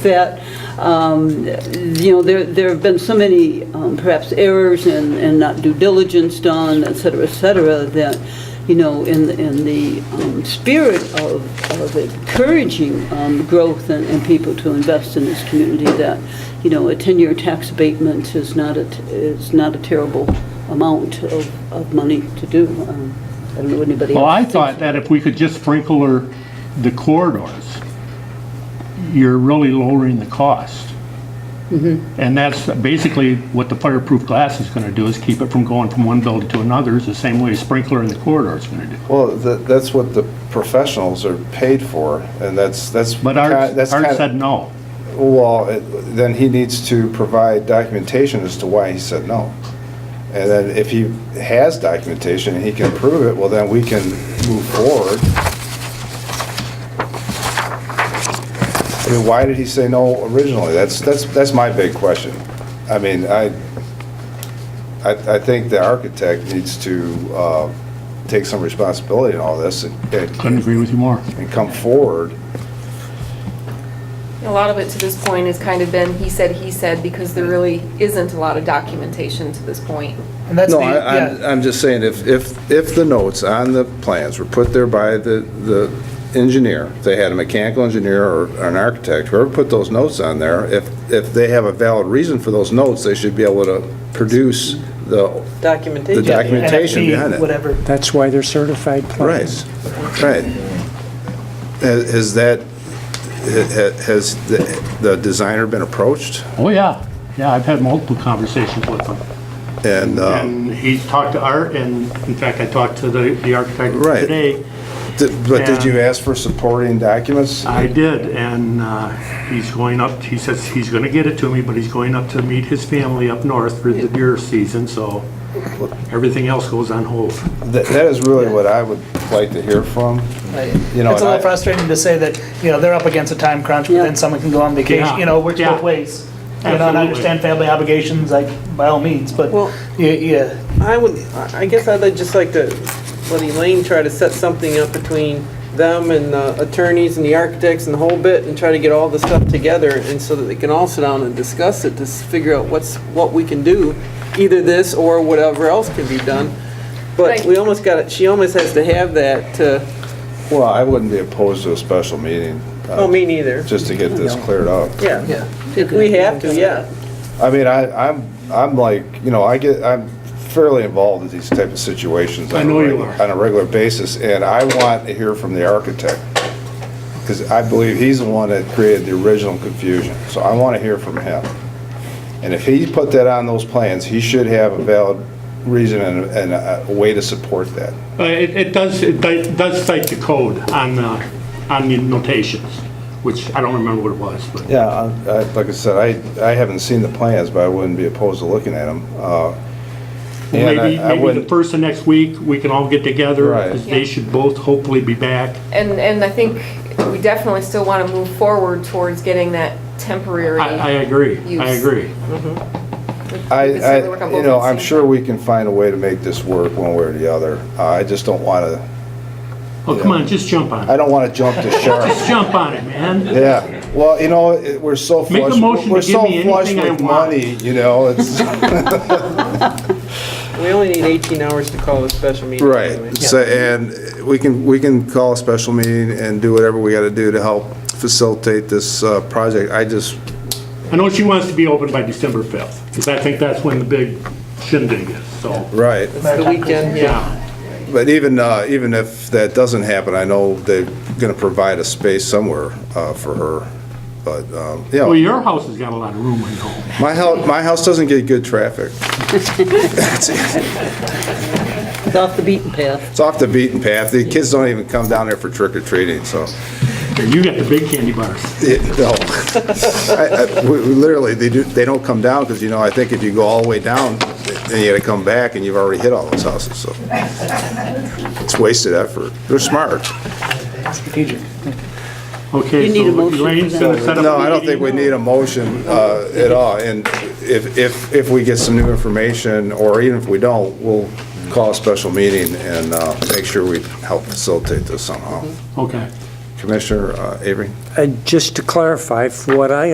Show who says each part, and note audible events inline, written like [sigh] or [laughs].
Speaker 1: fit. Um, You know, there, there have been so many um, perhaps errors and, and not due diligence done, et cetera, et cetera, that, you know, in, in the um, spirit of, of encouraging um, growth and, and people to invest in this community, that, you know, a 10-year tax abatement is not a, t- is not a terrible amount of, of money to do. Um, I don't know what anybody else
Speaker 2: Well, I
Speaker 1: thinks.
Speaker 2: thought that if we could just sprinkle her the corridors, you're really lowering the cost. And that's basically what the fireproof glass is going to do, is keep it from going from one building to another, is the same way a sprinkler in the corridor is going to do.
Speaker 3: Well, that, that's what the professionals are paid for, and that's, that's.
Speaker 2: But
Speaker 3: ki-
Speaker 2: Art,
Speaker 3: that's
Speaker 2: Art
Speaker 3: kind
Speaker 2: said no.
Speaker 3: Well, it- then he needs to provide documentation as to why he said no. And then if he has documentation and he can prove it, well, then we can move forward. I mean, why did he say no originally? That's, that's, that's my big question. I mean, I, I, I think the architect needs to, uh, take some responsibility in all this and,
Speaker 2: Couldn't
Speaker 3: and
Speaker 2: agree with you more.
Speaker 3: and come forward.
Speaker 4: A lot of it to this point has kind of been he said, he said, because there really isn't a lot of documentation to this point.
Speaker 5: And that's
Speaker 3: No,
Speaker 5: the,
Speaker 3: I- I'm,
Speaker 5: yeah,
Speaker 3: I'm just saying, if, if, if the notes on the plans were put there by the, the engineer, if they had a mechanical engineer or or an architect, whoever put those notes on there, if, if they have a valid reason for those notes, they should be able to produce the, the
Speaker 1: Documentation.
Speaker 3: documentation
Speaker 5: NFP,
Speaker 3: behind it.
Speaker 5: Whatever.
Speaker 6: That's why they're certified plans.
Speaker 3: Right, right. Has has that, ha- ha- has the the designer been approached?
Speaker 2: Oh, yeah. Yeah, I've had multiple conversations with him.
Speaker 3: And, um,
Speaker 2: And he's talked to Art, and in fact, I talked to the, the architect
Speaker 3: Right.
Speaker 2: today.
Speaker 3: di- but did you
Speaker 2: and-
Speaker 3: ask for supporting documents?
Speaker 2: I did, and uh, he's going up, he says he's going to get it to me, but he's going up to meet his family up north for the deer season, so everything else goes on hold.
Speaker 3: That that is really what I would like to hear from. You know,
Speaker 5: It's
Speaker 3: and I-
Speaker 5: a little frustrating to say that, you know, they're up against a time crunch, but
Speaker 1: Yeah.
Speaker 5: then someone can go on vacation,
Speaker 2: Yeah.
Speaker 5: you know, it works
Speaker 2: Yeah.
Speaker 5: both ways. You know, and
Speaker 2: Absolutely.
Speaker 5: I understand family obligations, like, by all means, but,
Speaker 7: Well-
Speaker 5: yeah, yeah,
Speaker 7: I would, I I guess I'd like- just like to let Elaine try to set something up between them and the attorneys and the architects and the whole bit and try to get all the stuff together and so that they can all sit down and discuss it to s- figure out what's, what we can do, either this or whatever else can be done. But
Speaker 4: Right.
Speaker 7: we almost got it, she almost has to have that to,
Speaker 3: Well, I wouldn't be opposed to a special meeting, uh,
Speaker 7: oh, me neither.
Speaker 3: just to get this cleared up.
Speaker 7: Yeah,
Speaker 5: yeah.
Speaker 7: if we have to, yeah.
Speaker 3: I mean, I, I'm, I'm like, you know, I get, I'm fairly involved in these type of situations.
Speaker 2: I
Speaker 3: on a
Speaker 2: know you
Speaker 3: regu-
Speaker 2: are.
Speaker 3: On a regular basis, and I want to hear from the architect, because I believe he's the one that created the original confusion, so I want to hear from him. And if he put that on those plans, he should have a valid reason and, and a a way to support that.
Speaker 2: Uh, It, it does, it di- does cite the code on, uh, on the notations, which I don't remember what it was, but.
Speaker 3: Yeah, I- I- like I said, I, I haven't seen the plans, but I wouldn't be opposed to looking at them. Uh, and I-
Speaker 2: Maybe,
Speaker 3: I
Speaker 2: maybe the
Speaker 3: wouldn't-
Speaker 2: first of next week, we can all get together,
Speaker 3: Right.
Speaker 2: 'cause they should both hopefully be back.
Speaker 4: And, and I think we definitely still want to move forward towards getting that temporary.
Speaker 2: I, I agree, I
Speaker 4: Use.
Speaker 2: agree.
Speaker 3: I,
Speaker 4: Because they work
Speaker 3: I,
Speaker 4: on
Speaker 3: you
Speaker 4: both
Speaker 3: know,
Speaker 4: at the
Speaker 3: I'm
Speaker 4: same
Speaker 3: sure
Speaker 4: time.
Speaker 3: we can find a way to make this work one way or the other. Uh, I just don't want to,
Speaker 2: Oh, come on, just jump on
Speaker 3: I
Speaker 2: it.
Speaker 3: don't want to jump the
Speaker 2: [laughs]
Speaker 3: shark.
Speaker 2: Just jump on it, man.
Speaker 3: Yeah, well, you know, it- we're so
Speaker 2: Make a
Speaker 3: flush,
Speaker 2: motion to
Speaker 3: we're
Speaker 2: give me
Speaker 3: so flush
Speaker 2: anything I
Speaker 3: with
Speaker 2: want.
Speaker 3: money, you know, it's.
Speaker 2: [laughs]
Speaker 7: We only need 18 hours to call a special meeting. anyway.
Speaker 3: Right, so, and we can, we can call a special meeting and do whatever we got to do to help facilitate this uh, project. I just,
Speaker 2: I know she wants to be open by December 5th, because I think that's when the big shindig is, so,
Speaker 3: right.
Speaker 7: The weekend, yeah.
Speaker 2: yeah.
Speaker 3: But even, uh, even if that doesn't happen, I know they're going to provide a space somewhere uh, for her. But, um, you
Speaker 2: Well,
Speaker 3: know,
Speaker 2: your house has got a lot of room, I know.
Speaker 3: my house, my house doesn't get good traffic.
Speaker 1: It's off the beaten path.
Speaker 3: It's off the beaten path. The kids don't even come down there for trick or treating, so,
Speaker 2: You got the big candy bars.
Speaker 3: it- no. [laughs] I- I- we- we Literally, they do, they don't come down because, you know, I think if you go all the way down, then you got to come back and you've already hit all those houses, so. It's wasted effort. They're smart.
Speaker 5: Strategic.
Speaker 2: Okay,
Speaker 1: You need a
Speaker 2: so
Speaker 1: motion for
Speaker 2: Elaine's
Speaker 1: that.
Speaker 2: gonna set up a
Speaker 3: No, I don't
Speaker 2: meeting.
Speaker 3: think we need a motion uh, at all, and if, if, if we get some new information, or even if we don't, we'll call a special meeting and uh, make sure we help facilitate this somehow.
Speaker 2: Okay.
Speaker 3: Commissioner uh, Avery?
Speaker 6: And just to clarify, for what I